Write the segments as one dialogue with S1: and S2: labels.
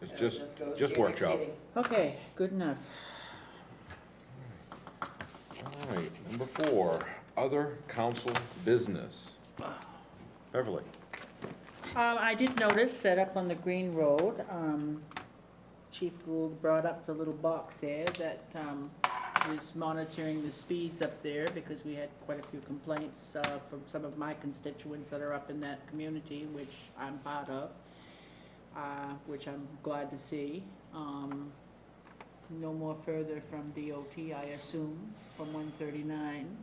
S1: It's
S2: It'll
S1: just-
S2: go
S1: just
S2: to your next
S1: workshop.
S2: meeting.
S3: Okay, good enough.
S1: All right, number four, other council business. Beverly,
S3: Um, I did notice that up on the Green Road, um, Chief Gould brought up the little box there that, um, is monitoring the speeds up there because we had quite a few complaints, uh, from some of my constituents that are up in that community, which I'm part of, uh, which I'm glad to see. Um, no more further from DOT, I assume, from one thirty-nine.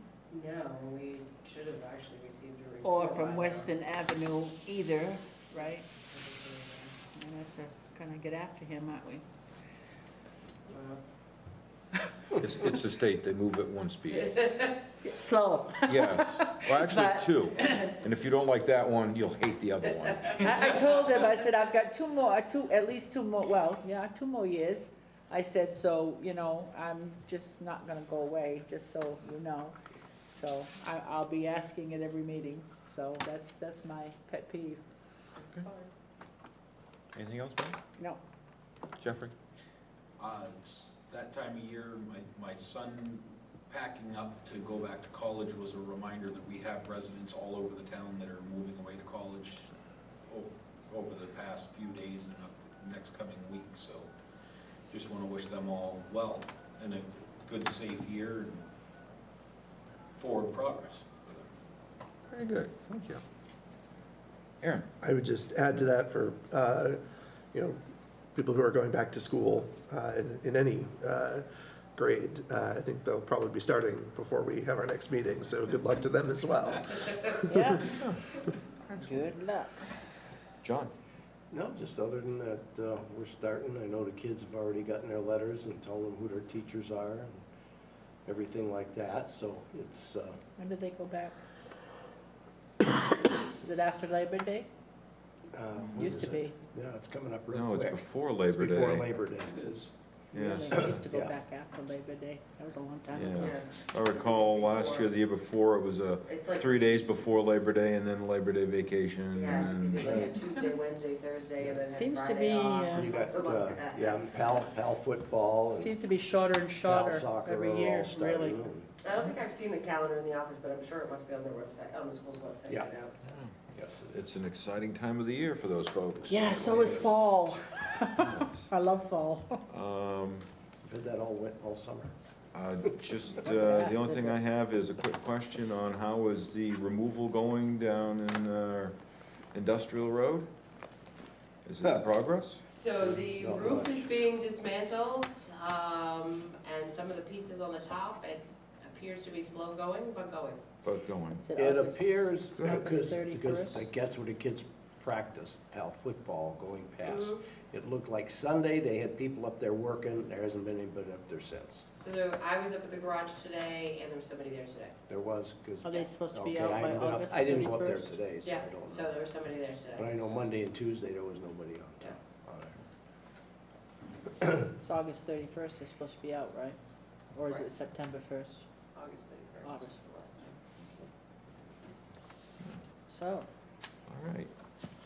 S2: No, we should have actually received a
S3: Or
S2: report.
S3: from
S2: by
S3: Weston Avenue either, right?
S2: now.
S3: We'll have to kind of get after him, aren't we?
S1: it's, it's the state, they move at one speed.
S3: Slow.
S1: Yes, well, actually,
S3: But-
S1: two. And if you don't like that one, you'll hate the other one.
S3: I, I told him, I said, I've got two more, uh, two, at least two more, well, yeah, two more years. I said, so, you know, I'm just not gonna go away, just so you know. So I, I'll be asking at every meeting, so that's, that's my pet peeve.
S1: Anything else, Mike?
S3: No,
S1: Jeffrey?
S4: Uh, it's that time of year, my, my son packing up to go back to college was a reminder that we have residents all over the town that are moving away to college o- over the past few days and up the next coming week, so just wanna wish them all well and a good, safe year and forward progress for them.
S1: Very good, thank you. Aaron?
S5: I would just add to that for, uh, you know, people who are going back to school uh, in in any uh, grade. Uh, I think they'll probably be starting before we have our next meeting, so good luck to them as well.
S3: yeah. Good luck.
S1: John?
S6: No, just other than that, uh, we're starting, I know the kids have already gotten their letters and telling them who their teachers are and everything like that, so it's, uh,
S3: When do they go back? Is it after Labor Day?
S6: uh. when
S3: Mm-hmm. Used
S6: is
S3: to
S6: it?
S3: be.
S6: Yeah, it's coming up real
S1: No, it's
S6: quick.
S1: before Labor Day.
S6: Before Labor Day.
S4: It is.
S1: Yes,
S3: Really, I used to go
S6: Yeah.
S3: back after Labor Day. That was a long time
S1: Yeah.
S3: ago.
S2: Uh,
S1: I
S2: Yeah.
S1: recall last year, the year before, it was a
S2: It's like,
S1: three days before Labor Day and then Labor Day vacation
S2: yeah, you
S1: and
S2: could do like a Tuesday, Wednesday, Thursday, and then
S3: Seems
S2: have
S3: to
S2: Friday
S3: be,
S2: off.
S3: uh,
S2: or
S6: You got,
S2: something
S6: uh,
S2: like that.
S6: yeah, PAL, PAL football and
S3: Seems to be shorter and
S6: PAL
S3: shorter
S6: soccer are
S3: every year,
S6: all starting.
S3: really.
S6: and-
S2: I don't think I've seen the calendar in the office, but I'm sure it must be on their website, on the school's website
S6: Yeah.
S2: right now, so.
S6: Yes, it
S1: it's an exciting time of the year for those folks.
S3: Yeah, so is fall. I love fall.
S1: Um,
S6: is. Did that all went all summer.
S1: uh, just, uh, the only thing I have is a quick question on how is the removal going down in, uh, Industrial Road? Is it in progress?
S2: So the
S6: Not
S2: roof
S6: much.
S2: is being dismantled, um, and some of the pieces on the top, it appears to be slow going, but going.
S1: But going.
S3: Is
S6: It
S3: August?
S6: appears,
S3: August
S6: because, because
S3: 31st?
S6: that gets where the kids practice PAL football going
S2: Mm-hmm.
S6: past. It looked like Sunday, they had people up there working, there hasn't been anybody up there since.
S2: So there, I was up at the garage today, and there was somebody there today.
S6: There was, because.
S3: Are Oh, they supposed to be out by August
S6: I didn't go up there
S3: 31st?
S6: today, so
S2: Yeah,
S6: I don't
S2: so
S6: know.
S2: there was somebody there
S6: But I
S2: today.
S6: know Monday and Tuesday, there was nobody on
S2: Yeah.
S6: there. on there.
S3: It's August thirty-first, it's supposed to be out, right? Or is
S2: Right.
S3: it September first?
S2: August thirty-first is
S3: August.
S2: the last time.
S3: So,
S1: All right.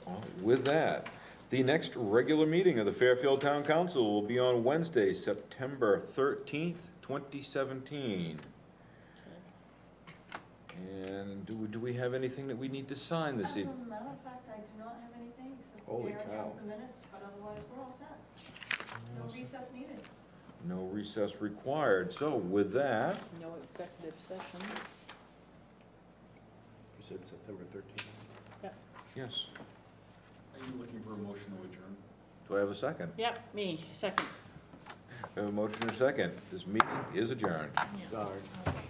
S1: Well, With that, the next regular meeting of the Fairfield Town Council will be on Wednesday, September thirteenth, twenty seventeen. And do, we- do we have anything that we need to sign this
S7: As a
S1: evening?
S7: matter of fact, I do not have anything, except
S6: Holy
S7: Darren has
S6: cow.
S7: the minutes, but otherwise, we're all set. No recess needed.
S1: No recess required, so with that,
S3: no executive session.
S6: You said September thirteenth?
S1: yes,
S4: Are you looking for a motion to adjourn?
S1: do I have a second?
S3: Yep, me, second.
S1: I have a motion and a second, this meeting is adjourned.
S6: Sorry.
S3: Okay.